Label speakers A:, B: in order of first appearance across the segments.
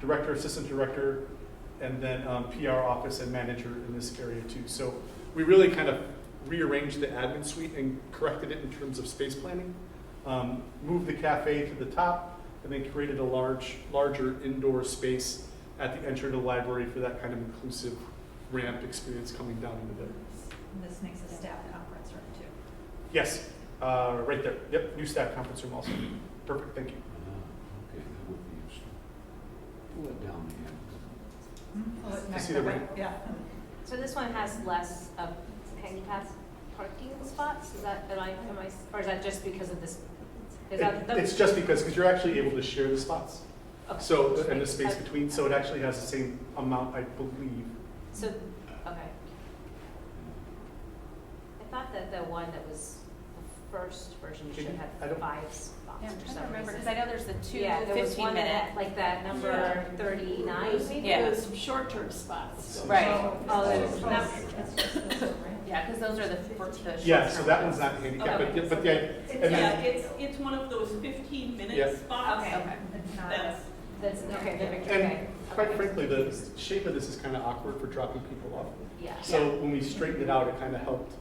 A: director, assistant director, and then um, PR office and manager in this area too. So we really kind of rearranged the admin suite and corrected it in terms of space planning. Um, moved the cafe to the top and then created a large, larger indoor space at the entry to the library for that kind of inclusive ramp experience coming down into there.
B: And This makes a staff conference room too.
A: Yes, uh, right there. Yep, new staff conference room also. Perfect, thank you.
C: Ah, Okay, that would be useful. Pull it down here.
D: Hmm.
B: Oh, it
A: I
B: might-
A: see the ring.
B: Yeah.
E: So this one has less of handicap parking spots, is that, am I, am I, or is that just because of this? Is that,
A: It- It's just because, because you're actually able to share the spots.
E: okay.
A: So, and the
E: Just
A: space
E: making-
A: between, so it actually has the same amount, I believe.
E: So, okay. I thought that the one that was the first version should
A: Didn't-
E: have
A: I don't-
E: five spots
D: Yeah,
E: for
D: I'm trying
E: some
D: to remember, because
E: reason.
D: I know there's the two
E: Yeah, there was one
D: 15 minute.
E: that, like that number
D: Yeah.
E: thirty-nine, maybe?
D: Yeah.
F: Those short-term spots.
D: Right.
E: Oh,
C: that's-
B: It's
E: that's-
B: just- it's just this ring.
D: Yeah, because those are the, for the short
A: Yeah, so that one's
D: term.
A: not handicapped, but, yeah,
E: Oh, Okay.
A: but yeah, and
F: Yeah,
A: then,
F: it's, it's one of those fifteen
A: Yeah.
F: minute spots.
E: Okay.
D: Okay.
B: It's not a-
F: That's,
E: That's, okay, the picture, okay.
A: and quite
E: Okay.
A: frankly, the shape of this is kind of awkward for dropping people off.
E: Yeah.
A: So when we straightened it out, it kind of helped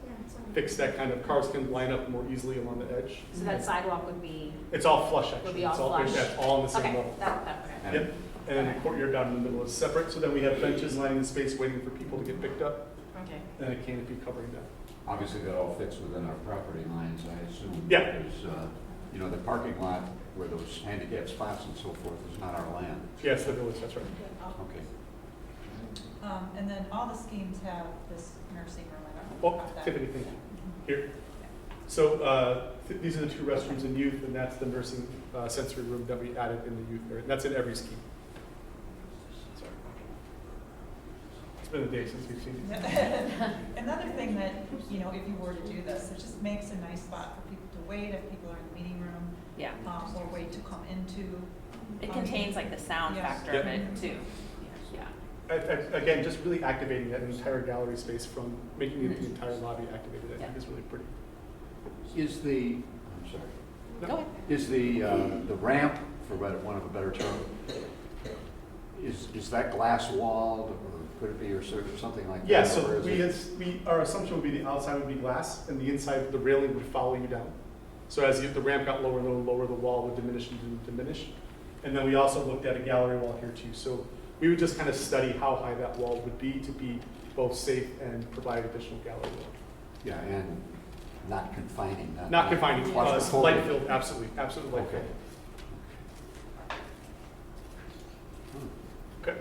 A: fix that kind of, cars can line up more easily along the edge.
E: So that sidewalk would be,
A: It's all flush,
E: would
A: actually.
E: be all
A: It's
E: flush?
A: That's all on the same
E: Okay,
A: level.
E: that, that, okay.
C: And-
A: Yep, and then the courtyard down in the middle is separate, so then we have benches lining the space waiting for people to get picked up,
E: Okay.
A: and a canopy covering that.
C: Obviously, that all fits within our property lines, I assume.
A: Yeah.
C: Because, uh, you know, the parking lot where those handicap spots and so forth is not our land.
A: Yes, the village, that's right.
B: Oh.
C: Okay.
B: Um, and then all the schemes have this nursing room, I don't know
A: Oh,
B: about that.
A: Tiffany, thank you. Here. So uh, th- these are the two restrooms in youth, and that's the nursing uh, sensory room that we added in the youth area. That's in every scheme. Sorry. It's been a day since we've seen it.
B: Another thing that, you know, if you were to do this, it just makes a nice spot for people to wait, if people are in the meeting room,
D: Yeah,
B: um, or wait to come into.
D: it
B: Um,
D: contains like the sound
B: yes.
D: factor of
A: Yeah.
D: it too. Yeah,
A: I- I- Again, just really activating that entire gallery space from making it the entire lobby activated, I think is really pretty.
C: Is the, I'm sorry,
A: No.
D: go ahead.
C: is the, uh, the ramp, for want want of a better term, is, is that glass walled or could it be or sort of something like that?
A: Yeah,
C: or
A: so
C: is
A: we,
C: it-
A: it's- we, our assumption would be the outside would be glass, and the inside, the railing would follow you down. So as you- the ramp got lower and lower, and lower, the wall would diminish and diminish. And then we also looked at a gallery wall here too, so we would just kind of study how high that wall would be to be both safe and provide additional gallery wall.
C: Yeah, and not confining, not.
A: Not confining, uh,
C: Claustrophobic.
A: light filled, absolutely, absolutely light
C: Okay.
A: filled. Okay.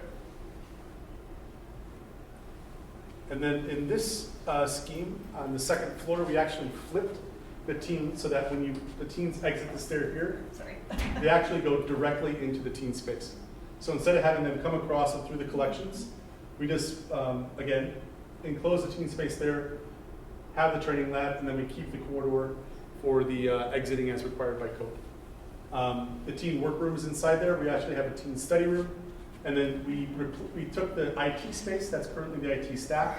A: And then in this uh, scheme, on the second floor, we actually flipped the teen so that when you, the teens exit the stair here,
B: Sorry.
A: they actually go directly into the teen space. So instead of having them come across and through the collections, we just, um, again, enclose the teen space there, have the training lab, and then we keep the corridor for the uh, exiting as required by code. Um, the teen workroom is inside there. We actually have a teen study room. And then we, repl- we took the IT space, that's currently the IT staff,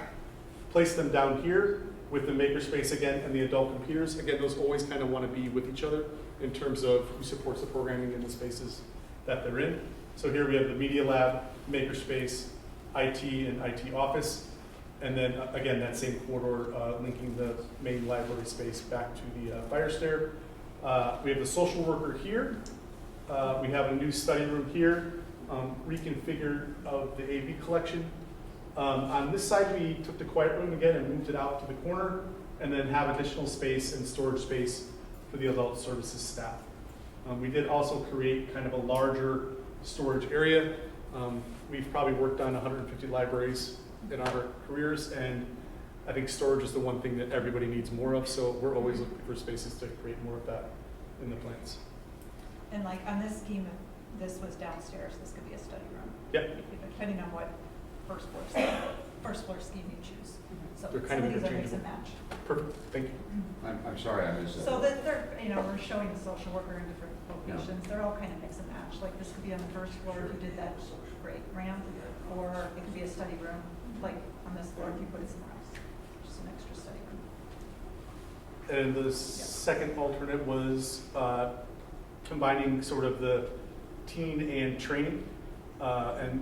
A: placed them down here with the makerspace again and the adult computers. Again, those always kind of want to be with each other in terms of who supports the programming in the spaces that they're in. So here we have the media lab, makerspace, IT, and IT office. And then uh, again, that same corridor uh, linking the main library space back to the uh, fire stair. Uh, we have the social worker here. Uh, we have a new study room here, um, reconfigured of the AV collection. Um, on this side, we took the quiet room again and moved it out to the corner, and then have additional space and storage space for the adult services staff. Um, we did also create kind of a larger storage area. Um, we've probably worked on 150 libraries in our careers, and I think storage is the one thing that everybody needs more of, so we're always looking for spaces to create more of that in the plans.
B: And like on this scheme, if this was downstairs, this could be a study room.
A: Yep.
B: Depending on what first floor, scheme- first floor scheme you choose. So
A: Mhm. They're
B: some
A: kind
B: of
A: of
B: these are mix
A: interchangeable.
B: and match.
A: Perfect, thank you.
C: I'm, I'm sorry, I missed that.
B: So that they're, you know, we're showing the social worker in different
C: Yeah.
B: locations, they're all kind of mix and match, like this could be on the first floor if you did that great ramp, or it could be a study room, like on this floor if you put it somewhere else, just an extra study room.
A: And the second alternate was uh, combining sort of the teen and training. uh, and